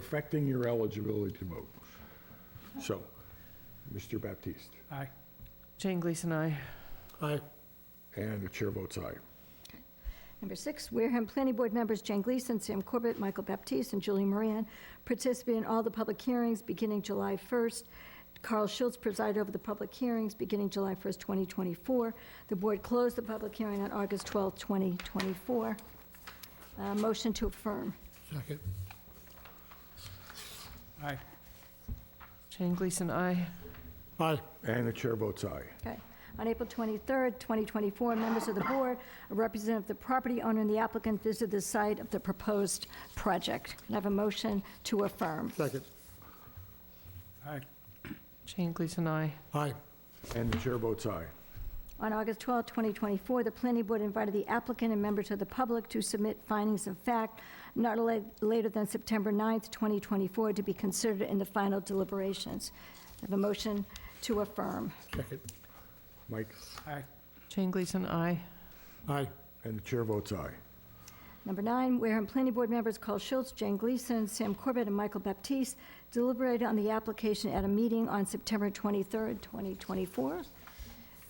perfecting your eligibility to vote. So, Mr. Baptiste, Aye. Jane Gleason, aye. Aye. and the chair votes aye. Number six, Wareham Planning Board members Jane Gleason, Sam Corbett, Michael Baptiste, and Julie Moran participate in all the public hearings beginning July 1st. Carl Schultz presided over the public hearings beginning July 1st, 2024. The board closed the public hearing on August 12th, 2024. Uh, Motion to affirm. Second. Aye. Jane Gleason, aye. Aye. And the chair votes aye. Okay. On April 23rd, 2024, members of the board, a representative of the property owner and the applicant visited the site of the proposed project. Can I have a motion to affirm? Second. Aye. Jane Gleason, aye. Aye. And the chair votes aye. On August 12, 2024, the planning board invited the applicant and members of the public to submit findings of fact not la- later than September 9, 2024, to be considered in the final deliberations. I have a motion to affirm. Second. Mike, Aye. Jane Gleason, aye. Aye. and the chair votes aye. Number nine, Wareham Planning Board members Carl Schultz, Jane Gleason, Sam Corbett, and Michael Baptiste deliberated on the application at a meeting on September 23, 2024.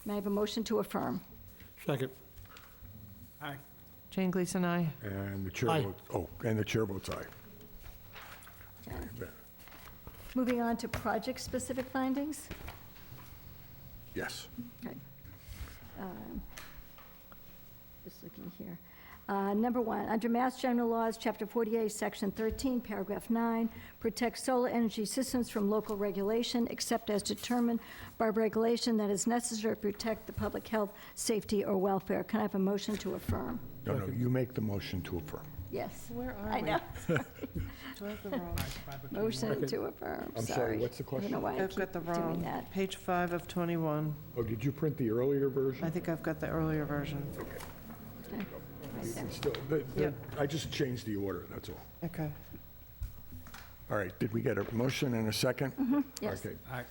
May I have a motion to affirm? Second. Aye. Jane Gleason, aye. And the chair Aye. votes, oh, and the chair votes aye. Moving on to project-specific findings. Yes. Okay. Um, Just looking here. Uh, Number one, under Mass General Laws, Chapter 48, Section 13, Paragraph 9, protects solar energy systems from local regulation except as determined by regulation that is necessary to protect the public health, safety, or welfare. Can I have a motion to affirm? No, no, you make the motion to affirm. Yes. Where are I we? know. Do I have the wrong- Motion to affirm, I'm sorry, sorry. what's the I don't know why I I've got keep the doing wrong, that. page five of 21. Oh, did you print the earlier I version? think I've got the earlier version. Okay. Right there. Still, the- the- Yeah. I just changed the order, that's all. Okay. All right, did we get a motion and a 2nd Mm-hmm. Yes. Okay, Aye.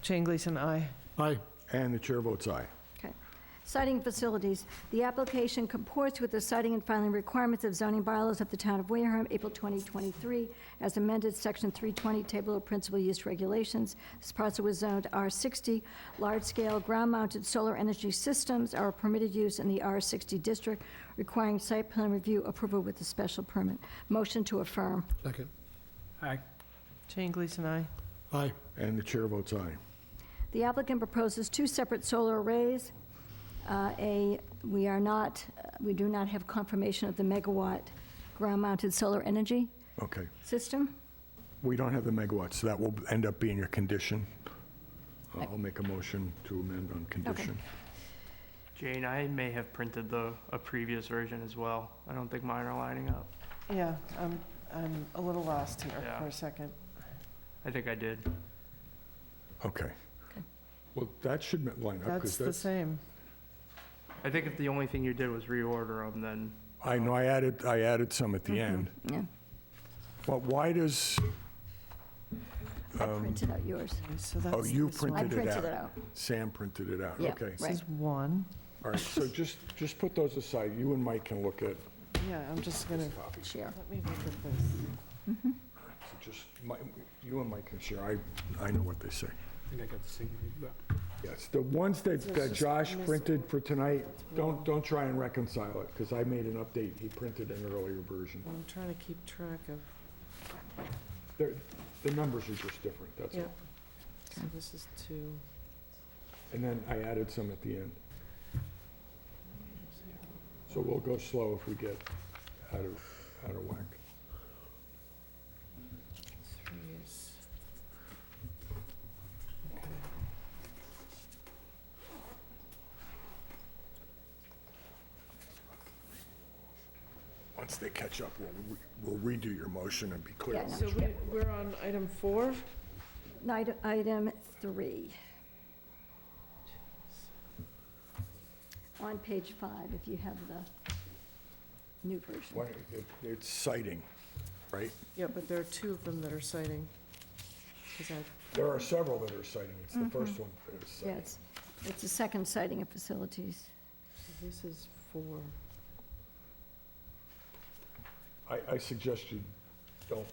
Jane Gleason, aye. Aye. and the chair votes aye. Okay. Citing facilities. The application comports with the citing and filing requirements of zoning bylaws of the town of Wareham, April 2023, as amended, Section 320, Table of Principal Use Regulations. This parcel was zoned R60. Large-scale ground-mounted solar energy systems are permitted use in the R60 district, requiring site plan review approval with a special permit. Motion to affirm. Second. Aye. Jane Gleason, aye. Aye. And the chair votes aye. The applicant proposes two separate solar arrays. Uh, A, we are not, we do not have confirmation of the megawatt ground-mounted solar energy Okay, system. we don't have the megawatts, so that will end up being a condition. Uh, I'll make a motion to amend on condition. Jane, I may have printed the, a previous version as well. I don't think mine are lining up. Yeah, I'm, I'm a little lost here Yeah. for a second. I think I did. Okay. Well, that should line up, That's because the that's, same. I think if the only thing you did was reorder them, then I know, I added, I added some at the end. Yeah, But why does, I printed out yours. So oh, that's you this one. I Um, printed it out? printed it out. Sam printed it out, Yeah, okay. right. This is one. All right, so just, just put those aside, you and Mike can look at Yeah, I'm just gonna, copies. Share. let me look at this. So Just, Mi- you and Mike can share, I, I know what they say. I think I got the same. Yes, the ones that that Josh printed for tonight, don't, don't try and reconcile it, because I made an update, he printed an earlier version. I'm trying to keep track of, They're- The numbers are just different, that's yeah. all. So this is two. And then I added some at the end. So we'll go slow if we get out of, out of whack. Three is. Once they catch up, we'll re- we'll redo your motion and be clear. Yeah, So we, we're on item four? Night- Item three. On page five, if you have the new version. Why- it- It's citing, right? Yeah, but there are two of them that are citing. Is that- There are several that are citing, it's the first one that is Yeah, citing. it's, it's the second sighting of facilities. so this is four. I, I suggest you don't